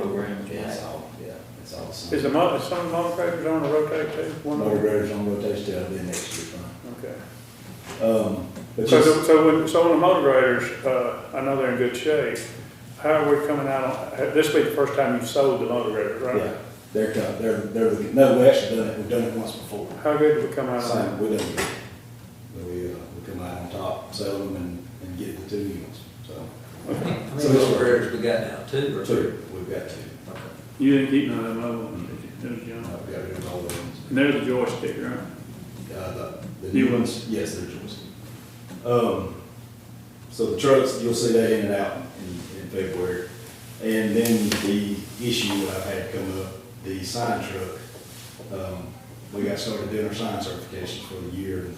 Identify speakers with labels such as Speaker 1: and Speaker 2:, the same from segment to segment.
Speaker 1: program.
Speaker 2: Yeah, it's all, yeah, it's all the same.
Speaker 3: Is the mo, is some contractors on the rotate too? One
Speaker 2: Motor
Speaker 3: more?
Speaker 2: graders on rotation, that'll be next year, fine.
Speaker 3: Okay.
Speaker 2: Um, but
Speaker 3: So,
Speaker 2: just,
Speaker 3: the- so when, so when the motor graders, uh, I know they're in good shape, how are we coming out on, ha- this will be the first time you've sold the motor grader,
Speaker 2: yeah,
Speaker 3: right?
Speaker 2: they're, co- they're, they're, looking- no, we actually done it, we've done it once before.
Speaker 3: How good did we come out on that?
Speaker 2: Same, we done it. But we, uh, we come out on top, sell them and, and get the two units, so.
Speaker 4: How many little prayers we got now, two or three?
Speaker 2: Two, we've got two.
Speaker 3: You didn't keep none of them other ones, did you? Those young-
Speaker 2: I've got rid of all the ones.
Speaker 3: And there's the joystick, right?
Speaker 2: Uh, the, the
Speaker 3: New
Speaker 2: new ones, yes, they're joints. Um, so the trucks, you'll see that in and out in, in February. And then the issue I've had come up, the sign truck, um, we got started doing our sign certifications for the year. and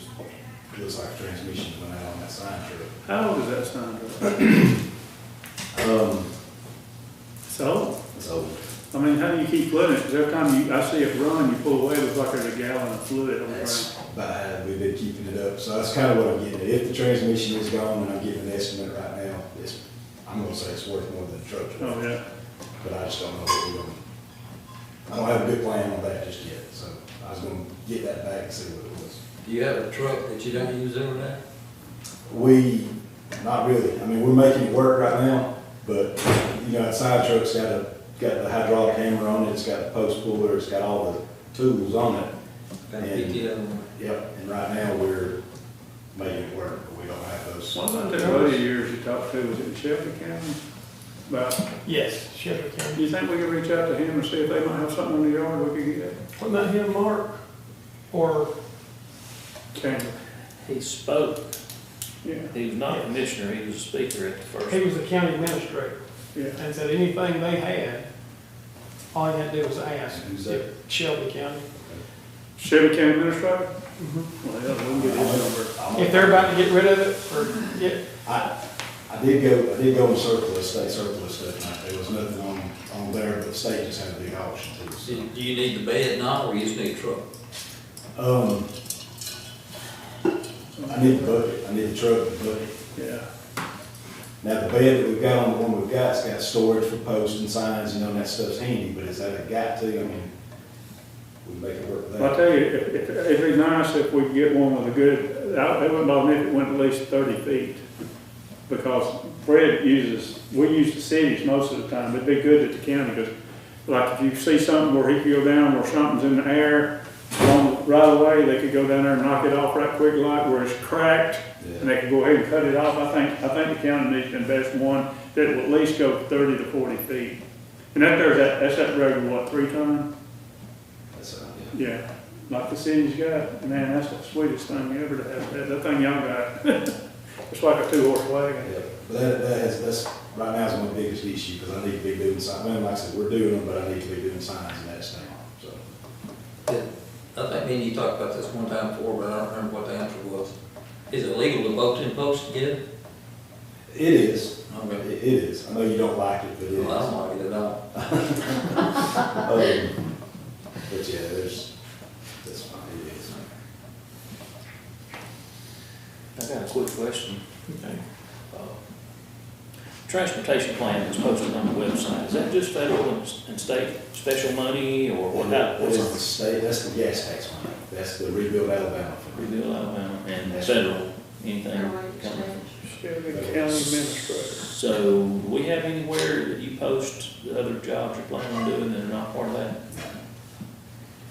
Speaker 2: it Looks like transmission went out on that sign truck.
Speaker 3: How old is that sign? truck?
Speaker 2: Um,
Speaker 3: So,
Speaker 2: so,
Speaker 3: I mean, how do you keep flooding it? 'Cause every time you, I see it run, you pull away, it looks like there's a gallon of fluid on the ground.
Speaker 2: that's bad, we've been keeping it up, so that's kind of what I'm getting at. If the transmission is gone, and I'm giving an estimate right now, it's, I'm gonna say it's worth more than the truck.
Speaker 3: Oh, yeah.
Speaker 2: but I just don't know what we're gonna, I don't have a good plan on that just yet, so I was gonna get that back and see what it was.
Speaker 4: Do you have a truck that you don't use every day?
Speaker 2: We, not really, I mean, we're making it work right now, but, you know, that side truck's got a, got the hydraulic hammer on it, it's got the post puller, it's got all the tools on it.
Speaker 4: Got a
Speaker 2: Yeah.
Speaker 4: PTO on it?
Speaker 2: Yep, and right now, we're making it work, but we don't have those.
Speaker 3: One of the earlier years you talked to, was it in Shelby County? About
Speaker 5: Yes, Sheriff County.
Speaker 3: Do you think we could reach out to him and see if they might have something in the yard we could get?
Speaker 5: What about him, Mark? Or
Speaker 3: Chandler,
Speaker 1: He spoke,
Speaker 3: yeah,
Speaker 1: he was not a commissioner, he was a speaker at the first.
Speaker 5: he was the county administrator
Speaker 3: yeah.
Speaker 5: and said anything they had, all you had to do was ask.
Speaker 2: Who's that?
Speaker 5: Shelby County.
Speaker 3: Shelby County Administrator? Well, we'll get his number.
Speaker 5: If they're about to get rid of it or get,
Speaker 2: I, I did go, I did go on surplus, state surplus that night, there was nothing on, on there, but the state just had a big auction too,
Speaker 4: So
Speaker 2: so.
Speaker 4: Do you need the bed now, or you just need a truck?
Speaker 2: Um, I need the bucket, I need the truck and the bucket.
Speaker 3: Yeah,
Speaker 2: Now, the bed that we've got on the one we've got's got storage for posts and signs, you know, and that stuff's handy, but is that a got to, I mean, we make it work with
Speaker 3: Well,
Speaker 2: that.
Speaker 3: I tell you, if, if, it'd be nice if we could get one with a good, I- it wouldn't bother me if it went at least thirty feet. Because Fred uses, we use the cities most of the time, it'd be good at the county, because like if you see something where he could go down, where something's in the air, along, right away, they could go down there and knock it off right quick like where it's cracked, and
Speaker 2: Yeah,
Speaker 3: they could go ahead and cut it off, I think, I think the county needs to invest one that will at least go thirty to forty feet. And that there's that, that's that road, what, three ton?
Speaker 2: that's, uh,
Speaker 3: Yeah, like the city's got, man, that's the sweetest thing ever to have, that, that thing y'all got. It's like a two horse
Speaker 2: yeah,
Speaker 3: wagon.
Speaker 2: yeah. But that, that has, that's, right now is my biggest issue, because I need to be doing signs, man, like I said, we're doing them, but I need to be doing signs and that stuff, so.
Speaker 4: Did- I think me and you talked about this one time before, but I don't remember what the answer was. Is it legal to vote in post again?
Speaker 2: It is, it,
Speaker 4: Okay.
Speaker 2: it is, I know you don't like it, but it is.
Speaker 4: Well, I don't like it at all.
Speaker 2: Um, But yeah, there's, that's fine, it is.
Speaker 1: I got a quick question. Uh, Transportation plan that's posted on the website, is that just federal and s- and state special money or what? how-
Speaker 2: What
Speaker 1: what's
Speaker 2: is the
Speaker 1: it?
Speaker 2: state, that's the gas tax money, that's the rebuild Alabama.
Speaker 1: We
Speaker 2: fund.
Speaker 1: do Alabama and federal, anything coming.
Speaker 3: Shelby County Administrator.
Speaker 1: So, do we have anywhere that you post the other jobs you're planning on doing that are not part of that?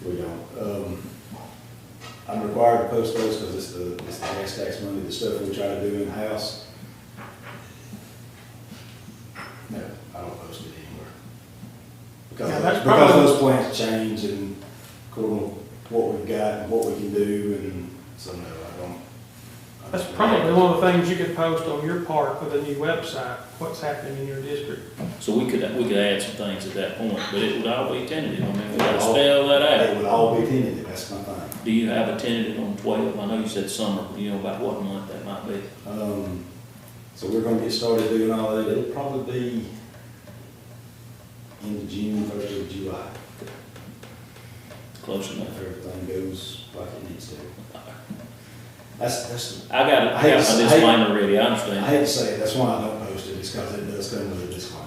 Speaker 2: We don't, um, I'm required to post those because it's the, it's the gas tax money, the stuff we try to do in-house. No, I don't post it anywhere.
Speaker 5: Yeah,
Speaker 2: Because,
Speaker 5: that's
Speaker 2: because
Speaker 5: probably-
Speaker 2: those plans change and according to what we've got and what we can do and so no, I don't. I
Speaker 5: that's
Speaker 2: don't-
Speaker 5: probably one of the things you could post on your part with a new website, what's happening in your district.
Speaker 1: So we could, we could add some things at that point, but it would all be tentative, I mean, we gotta spell that out.
Speaker 2: They would all be tentative, that's my thing.
Speaker 1: Do you have a tentative on twelve? I know you said summer, but you know about what month that might be.
Speaker 2: Um, so we're gonna get started doing all that, it'll probably be end of June, first of July,
Speaker 1: Close enough.
Speaker 2: if everything goes like it needs to. That's, that's,
Speaker 1: I got, I got my disclaimer ready, I
Speaker 2: I
Speaker 1: understand.
Speaker 2: hate to say it, that's why I don't post it, is because it does come with a disclaimer.